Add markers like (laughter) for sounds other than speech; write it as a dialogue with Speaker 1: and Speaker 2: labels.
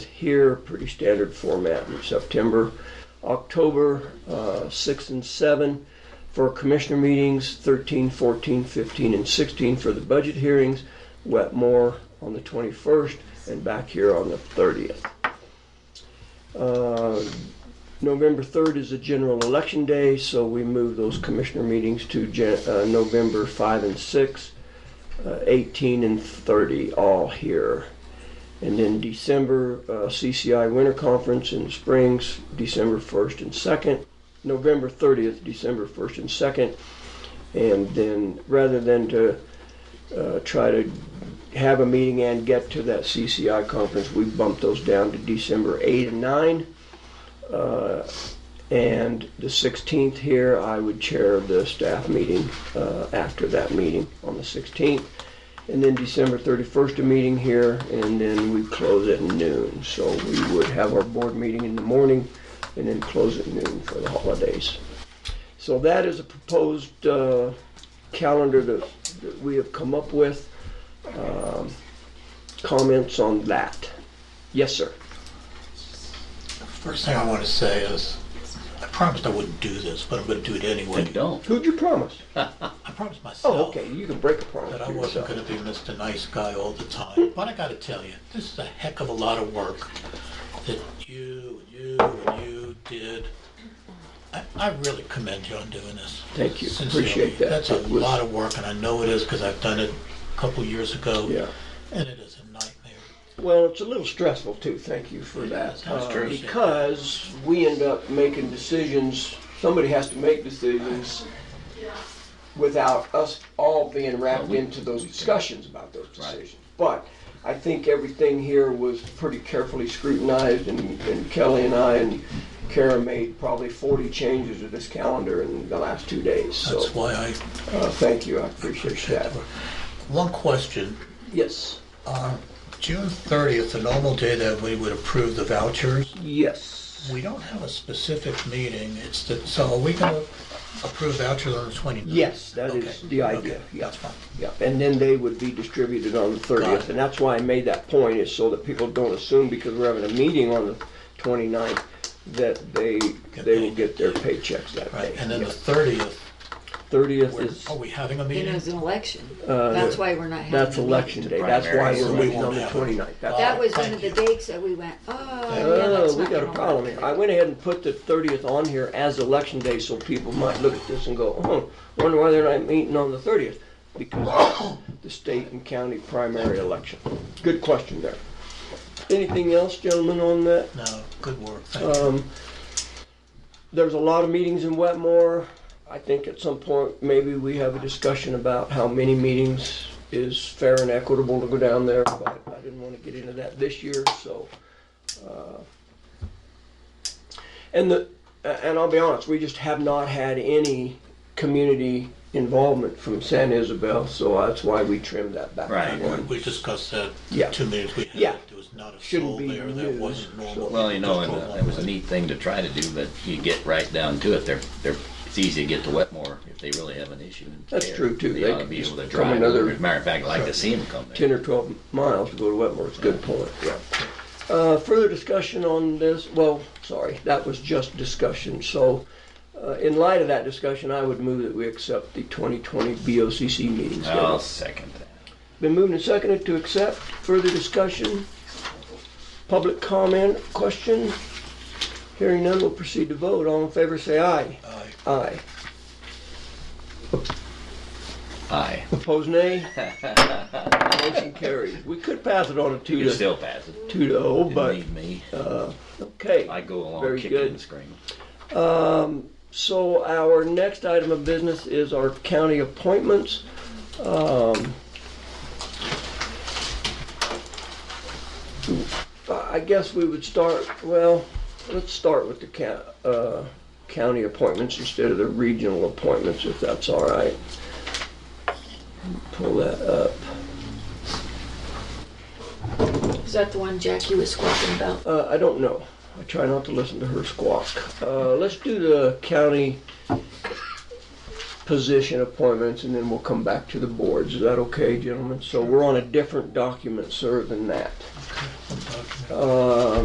Speaker 1: here, pretty standard format in September. October uh, 6 and 7 for commissioner meetings, 13, 14, 15, and 16 for the budget hearings, Wetmore on the 21st, and back here on the 30th. Uh, November 3rd is a general election day, so we move those commissioner meetings to Jan- uh, November 5 and 6, uh, 18 and 30, all here. And then December, uh, CCI Winter Conference in Springs, December 1st and 2nd, November 30th, December 1st and 2nd. And then, rather than to uh, try to have a meeting and get to that CCI conference, we bumped those down to December 8 and 9. Uh, And the 16th here, I would chair the staff meeting uh, after that meeting on the 16th. And then December 31st, a meeting here, and then we close at noon. So we would have our board meeting in the morning and then close at noon for the holidays. So that is a proposed uh, calendar that that we have come up with. Um, Comments on that? Yes, sir.
Speaker 2: First thing I want to say is, I promised I wouldn't do this, but I'm going to do it anyway.
Speaker 3: Then don't.
Speaker 1: Who'd you promise?
Speaker 2: I promised myself
Speaker 1: Oh, okay, you can break a promise
Speaker 2: that I
Speaker 1: to
Speaker 2: wasn't
Speaker 1: yourself.
Speaker 2: going to be Mr. Nice Guy all the time. But I got to tell you, this is a heck of a lot of work that you, you, and you did. I, I really commend you on doing this.
Speaker 1: Thank you.
Speaker 2: Sincerely.
Speaker 1: Appreciate that.
Speaker 2: That's a
Speaker 1: It was-
Speaker 2: lot of work, and I know it is because I've done it a couple years ago.
Speaker 1: Yeah.
Speaker 2: And it is a nightmare.
Speaker 1: Well, it's a little stressful too, thank you for that.
Speaker 2: That's
Speaker 1: Uh,
Speaker 2: true.
Speaker 1: Because we end up making decisions, somebody has to make decisions without us all being wrapped
Speaker 3: Well, we-
Speaker 1: into those discussions about those decisions. But I think everything here was pretty carefully scrutinized and and Kelly and I and Kara made probably 40 changes to this calendar in the last two days. So,
Speaker 2: That's why I
Speaker 1: uh, thank you, I appreciate
Speaker 2: appreciate
Speaker 1: that.
Speaker 2: the work. One question.
Speaker 1: Yes,
Speaker 2: Uh, June 30th, the normal day that we would approve the vouchers,
Speaker 1: yes.
Speaker 2: we don't have a specific meeting, it's the, so are we gonna approve vouchers on the 29th?
Speaker 1: Yes, that is
Speaker 2: Okay,
Speaker 1: the idea.
Speaker 2: okay,
Speaker 1: Yeah.
Speaker 2: That's fine.
Speaker 1: Yep, and then they would be distributed on the thirtieth, and that's why I made that point, is so that people don't assume because we're having a meeting on the 29th that they, they will get their paychecks that
Speaker 2: Right,
Speaker 1: day.
Speaker 2: and then the 30th,
Speaker 1: Thirtieth
Speaker 2: we're-
Speaker 1: is,
Speaker 2: are we having a
Speaker 4: It was
Speaker 2: meeting?
Speaker 4: an election.
Speaker 1: Uh,
Speaker 4: That's why we're not having.
Speaker 1: that's
Speaker 4: a
Speaker 1: election day, that's why
Speaker 3: Primary,
Speaker 1: we're
Speaker 3: so we
Speaker 1: meeting
Speaker 2: won't
Speaker 1: on the
Speaker 2: have it.
Speaker 1: 29th. That's-
Speaker 4: That was one
Speaker 2: Thank
Speaker 4: of the
Speaker 2: you.
Speaker 4: dates that we went, oh, yeah, that's
Speaker 1: Oh, we
Speaker 4: not
Speaker 1: got a
Speaker 4: gonna
Speaker 1: problem
Speaker 4: work.
Speaker 1: here. I went ahead and put the thirtieth on here as election day, so people might look at this and go, oh, wonder why they're not meeting on the thirtieth, because of the state and county primary election. Good question there. Anything else, gentlemen, on that?
Speaker 2: No, good work, thank you.
Speaker 1: Um, there's a lot of meetings in Wetmore. I think at some point, maybe we have a discussion about how many meetings is fair and equitable to go down there, but I didn't want to get into that this year, so. uh, And the, a- and I'll be honest, we just have not had any community involvement from San Isabel, so that's why we trimmed that back. to
Speaker 3: Right.
Speaker 1: one.
Speaker 2: We discussed that
Speaker 1: Yeah.
Speaker 2: two meetings we
Speaker 1: Yeah.
Speaker 2: had, there was not a
Speaker 1: Shouldn't
Speaker 2: soul
Speaker 1: be
Speaker 2: there, that
Speaker 1: news,
Speaker 2: wasn't normal.
Speaker 1: so-
Speaker 3: Well, you know, and, uh,
Speaker 2: Just
Speaker 3: it was a neat thing to try to do, but you get right down to it. They're, they're, it's easy to get to Wetmore if they really have an issue. and
Speaker 1: That's
Speaker 3: care.
Speaker 1: true, too.
Speaker 3: They,
Speaker 1: They
Speaker 3: ought to
Speaker 1: could
Speaker 3: be
Speaker 1: just
Speaker 3: able to
Speaker 1: come
Speaker 3: drive.
Speaker 1: another-
Speaker 3: Another, As a matter of fact, I'd like to see them come there.
Speaker 1: 10 or 12 miles to go to Wetmore, it's a good point, yeah. Uh, Further discussion on this, well, sorry, that was just discussion, so uh, in light of that discussion, I would move that we accept the 2020 BOCC meeting schedule.
Speaker 3: I'll second that.
Speaker 1: Been moved and seconded to accept, further discussion, public comment, question? Hearing none, we'll proceed to vote, all in favor say aye.
Speaker 2: Aye.
Speaker 1: Aye.
Speaker 3: Aye.
Speaker 1: Opposed
Speaker 3: (laughs)
Speaker 1: nay? Motion carries. We could pass it on a two
Speaker 3: You
Speaker 1: to,
Speaker 3: still pass it.
Speaker 1: two to oh,
Speaker 3: Didn't
Speaker 1: but,
Speaker 3: need me.
Speaker 1: okay.
Speaker 3: I go along
Speaker 1: very
Speaker 3: kicking
Speaker 1: good.
Speaker 3: and screaming.
Speaker 1: So our next item of business is our county appointments. Um, I guess we would start, well, let's start with the ca- uh, county appointments instead of the regional appointments, if that's all right. Pull that up.
Speaker 4: Is that the one Jackie was squawking about?
Speaker 1: Uh, I don't know. I try not to listen to her squawk. Uh, let's do the county position appointments and then we'll come back to the boards. Is that okay, gentlemen? So we're on a different document, sir, than that.
Speaker 2: Okay, I'm talking.
Speaker 1: Uh,